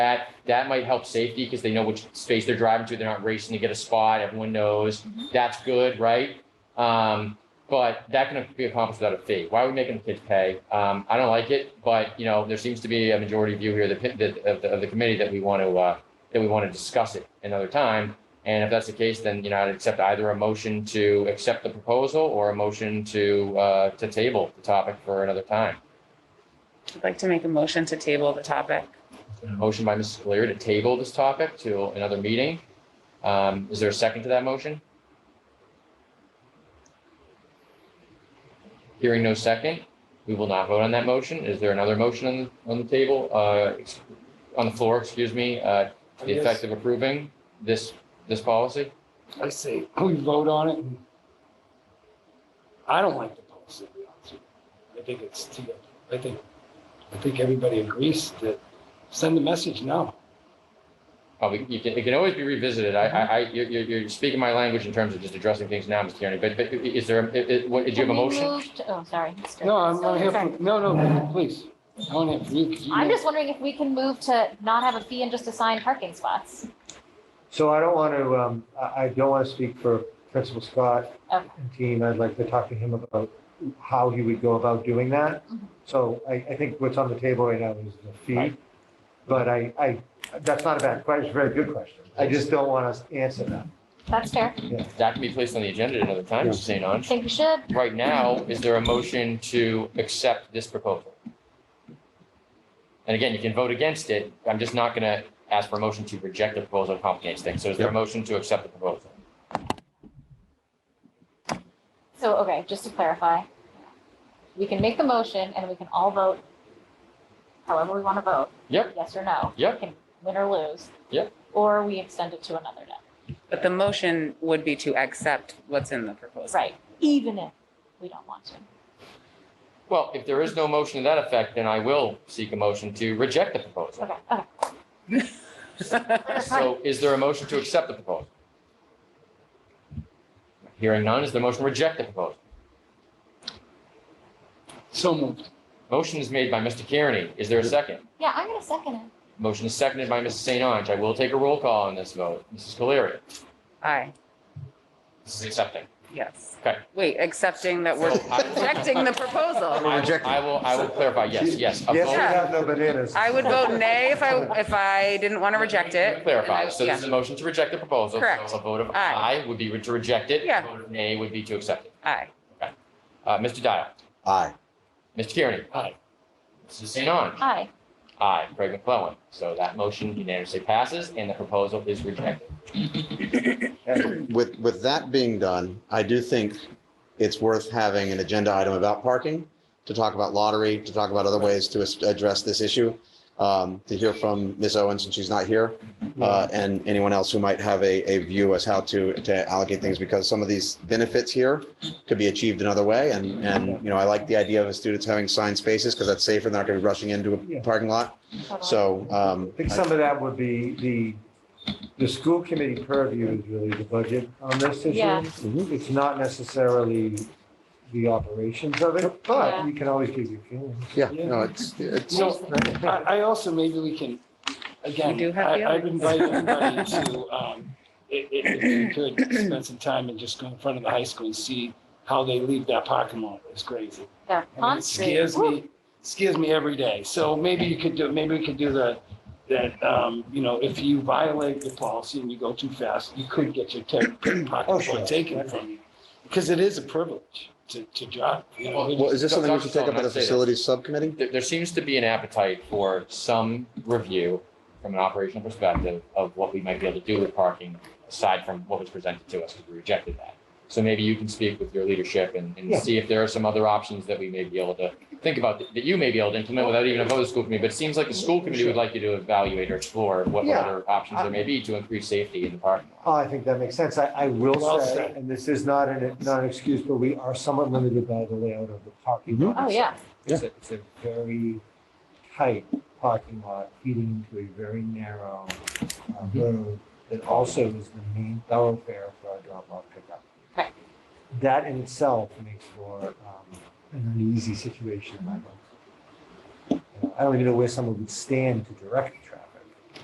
That, that might help safety because they know which space they're driving to. They're not racing to get a spot. Everyone knows. That's good, right? Um, but that can be accomplished without a fee. Why are we making the kids pay? Um, I don't like it, but you know, there seems to be a majority view here, that- that, of the, of the committee that we want to, uh, that we want to discuss it another time. And if that's the case, then, you know, I'd accept either a motion to accept the proposal or a motion to, uh, to table the topic for another time. I'd like to make a motion to table the topic. Motion by Mrs. Clear to table this topic to another meeting. Um, is there a second to that motion? Hearing no second, we will not vote on that motion. Is there another motion on, on the table, uh, ex- on the floor, excuse me, uh, to the effect of approving this, this policy? I say, we vote on it. and- I don't like the policy, to be honest with you. I think it's, too- I think, I think everybody agrees that send a message now. Uh, we, you can, it can always be revisited. I, I, I, you're, you're, you're speaking my language in terms of just addressing things now, Mr. Kearney, but, but i- is there, i- i- what, did you have a Can we motion? move to- Oh, sorry. Mr. No, I'm, I'm here Sorry. for, no, no, please. I want it for you. 'cause you I'm know- just wondering if we can move to not have a fee and just assign parking spots. So I don't want to, um, I, I don't want to speak for Principal Scott Okay. and team. I'd like to talk to him about how he would go about doing that. Mhm. So I, I think what's on the table right now is the fee. Right. But I, I, that's not a bad question. It's a very good question. I just don't want to answer that. That's fair. That can be placed on the agenda at another time, Yeah. Mr. St. I Ange. think we should. Right now, is there a motion to accept this proposal? And again, you can vote against it. I'm just not going to ask for a motion to reject the proposal and complicate things. So is there a motion to accept the proposal? So, okay, just to clarify, we can make the motion and we can all vote however we want to vote. Yep. Yes or no. Yep. We can Win or lose. Yep. Or we extend it to another day. But the motion would be to accept what's in the proposal. Right. Even if we don't want to. Well, if there is no motion to that effect, then I will seek a motion to reject the proposal. Okay, okay. So is there a motion to accept the proposal? Hearing none, is there a motion to reject the proposal? So moved. Motion is made by Mr. Kearney. Is there a second? Yeah, I'm going to second it. Motion is seconded by Mrs. St. Ange. I will take a roll call on this vote. Mrs. Cleary, Aye, this is accepting. yes. Okay. Wait, accepting that we're So I- rejecting the I proposal. will- rejecting. I will, I will clarify, yes, yes. a Yes, we vote- Yeah. have no bananas. I would vote nay if I, if I didn't want to reject it. Clarify, And I- so this is a motion to reject the proposal. Correct. So a vote of Aye. aye would be to reject it. Yeah. A vote of Nay would be to accept it. yeah, Aye, Uh, Mr. Dial. Aye. Mr. Kearney. Aye. Mrs. St. Ange. Aye. Aye. Craig McClellan. So that motion unanimously passes and the proposal is rejected. With, with that being done, I do think it's worth having an agenda item about parking, to talk about lottery, to talk about other ways to as- address this issue, um, to hear from Ms. Owens, since she's not here, uh, and anyone else who might have a, a view as how to, to allocate things, because some of these benefits here could be achieved another way. And, and, you know, I like the idea of the students having signed spaces, because that's safer, they're not going to be rushing into a parking lot. Totally. So, um, I think some of that would be the, the school committee purview is really the budget on this Yeah. issue. Mm-hmm. Mhm. It's not necessarily the operations of it, Yeah. but you can always give your feelings. yeah, no, it's, it's. So Oh, I, I also, maybe we can, again, You do have I, the I'd other. invite everybody to, um, i- i- if you could, spend some time and just go in front of the high school and see how they leave that parking lot. It's crazy. Yeah, I mean, Pond it Street. scares Woo. me, scares me every day. Oh. So maybe you could do, maybe we could do the, that, um, you know, if you violate the policy and you go too fast, you could get your ten, Oh, pocket sure. full taken from you. Because it is a privilege to, to drive, you know. Well, is this something we should take up at Dr. Stone, the I'd say this. facilities subcommittee? There, there seems to be an appetite for some review from an operational perspective of what we might be able to do with parking aside from what was presented to us, because we rejected that. So maybe you can speak with your leadership and, and Yeah. see if there are some other options that we may be able to think about, that that you may be able to implement without even a vote of the school committee. But it seems like the school committee would like you to evaluate or explore what Yeah. other options there may be to increase safety in the parking lot. Oh, I think that makes sense. I, I will Well say, said. and this is not an, not an excuse, but we are somewhat limited by the layout of the parking lot. Oh, yeah. It's a, it's a very tight parking lot feeding into a very narrow uh, Mm-hmm. road that also is the main thoroughfare for our drop-off pickup. Right. That in itself makes for um, an uneasy situation in my mind. You know, I don't even know where someone would stand to direct